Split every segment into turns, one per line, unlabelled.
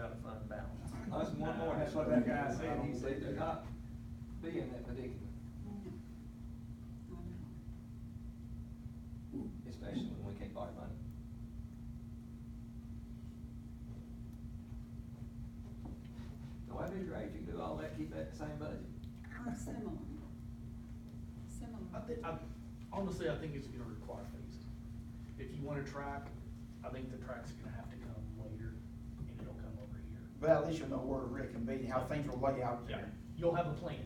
out of fund balance.
That's one more, that's what that guy said, he said to not be in that predicament, especially when we can't borrow money. So why be great, you can do all that, keep that same budget.
Or similar. Similar.
I think, I, honestly, I think it's gonna require phases. If you want a track, I think the track's gonna have to come later, and it'll come over here.
But at least you'll know where Rick can be, how things will lay out
Yeah,
there.
you'll have a plan.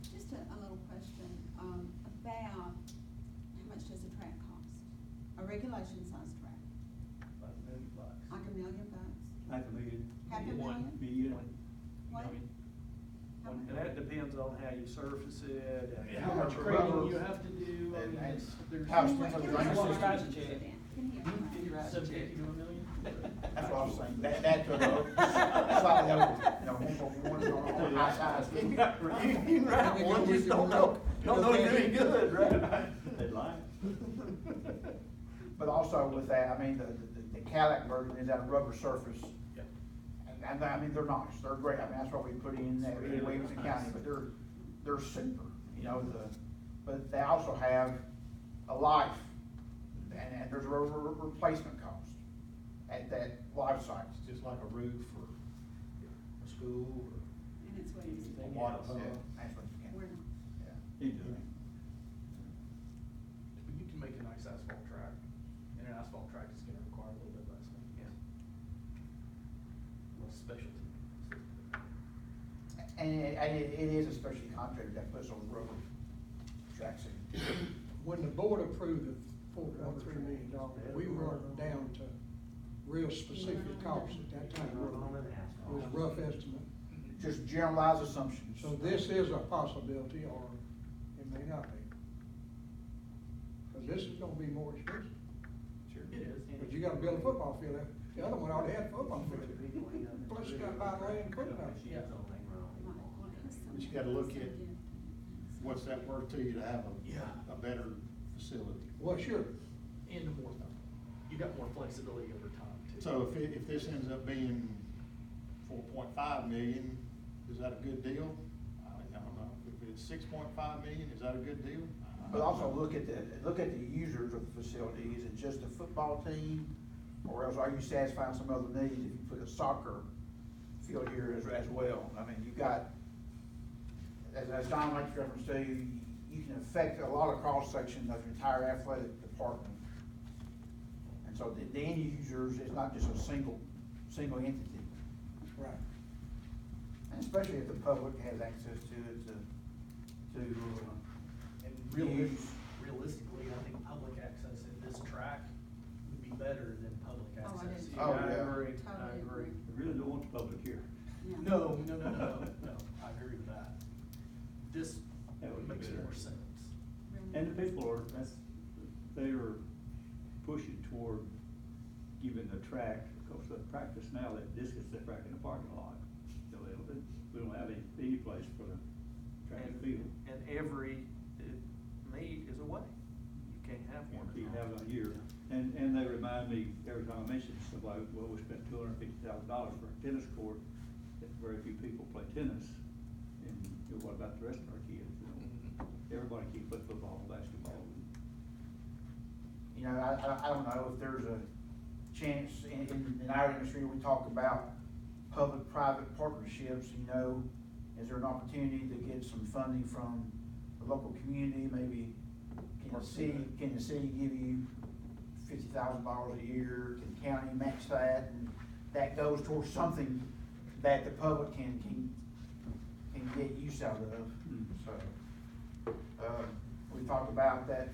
Just a, a little question, um, about how much does a track cost? A regulation size track,
About a million bucks.
like a million bucks?
Half a million.
Half
One.
a million?
Million.
What?
Million.
How
And
much?
that depends on how you surface it. and-
Yeah.
How much grading you have to do, I
And-
mean,
and
it's, there's.
how
Can we-
expensive
can
the
we-
drainage
can we-
system
is.
Can he-
Can you write a
Seven
check?
fifty to a million?
That's what I was saying, that, that could, uh, slightly over, you know, one for one, on the high side. You you can write one, just don't know, don't know you're doing good, right?
They'd lie.
But also with that, I mean, the, the, the Cadillac version is that rubber surface.
Yeah.
And, and I mean, they're nice, they're great, I mean, that's what we put in that, in Williamson County, but they're, they're super, you know, the, but they also have a life, and, and there's a re- re- replacement cost at that life cycle.
It's just like a roof or a school or
And it's what he's,
anything
Water,
else.
yeah, That's what you
we're
can,
not.
yeah.
You do it.
But You can make a nice asphalt track, and an asphalt track is gonna require a little bit less maintenance. Less specialty.
And, it- and it, it is a special contractor that puts on rubber tracks in.
When the board approved the four point three million dollars, we were down to real specific costs at that time. It was a rough estimate.
Just generalized assumptions.
So this is a possibility, or it may not be. Because this is gonna be more expensive.
It is.
But you gotta build a football field, out. the other one already had a football field. Plus you gotta buy land and put it up.
Yeah.
But you gotta look at What's
Oh,
that worth to you to have
Yeah.
a, a better facility?
Well, sure,
And more, you got more flexibility over time too.
So if, it- if this ends up being four point five million, is that a good deal? I I don't know. If it's six point five million, is that a good deal? I- I
But
don't
also
know.
look at the, look at the users of the facility, is it just a football team? Or else are you satisfying some other needs if you put a soccer field here as, as well? I mean, you've got, as, as Don makes reference to, you can affect a lot of cross-section of your entire athletic department. And so the, the end users is not just a single, single entity.
right.
And especially if the public has access to it to, to, uh,
And
use.
realistically, realistically, I think public access in this track would be better than public
Oh, I
access.
didn't-
here.
Oh,
I
yeah.
agree, I
Totally
agree.
agree.
We Really don't want the public here.
Yeah.
No, no, no, no, no, no, I agree with that. This
That would be
makes
better.
more sense.
Really.
And the people are, that's, they are pushing toward giving the track, because the practice now, that discus they track in the parking lot. So they don't, we don't have any, any place for the track and field.
And every uh, meet is away. You can't have one.
We have it here, and, and they remind me, every time I mention somebody, well, we spent two hundred and fifty thousand dollars for a tennis court, that very few people play tennis, and you know, what about the rest of our kids, you know? Everybody can play football, and basketball,
You know, I, I, I don't know if there's a chance in, in, in our industry, we talk about public-private partnerships, you know, is there an opportunity to get some funding from the local community, maybe? Can the city, can the city give you fifty thousand dollars a year, can the county match that? And That goes towards something that the public can, can, can get use out of,
Mm.
so. Uh, we talked about that,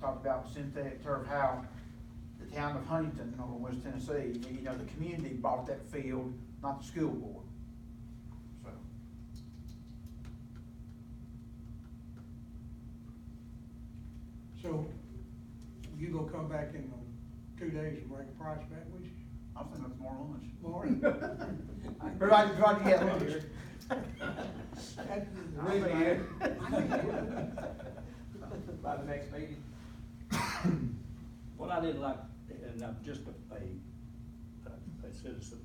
talked about synthetic turf, how the town of Huntington over in West Tennessee, you know, the community bought that field, not the school board. So,
So you gonna come back in uh, two days and bring a price back with you?
I'm thinking of tomorrow lunch.
Morning.
Everybody, everybody get lunch.
That's the
I'm
reason I-
here.
By the next meeting. What I didn't like, and I'm just a, a, a citizen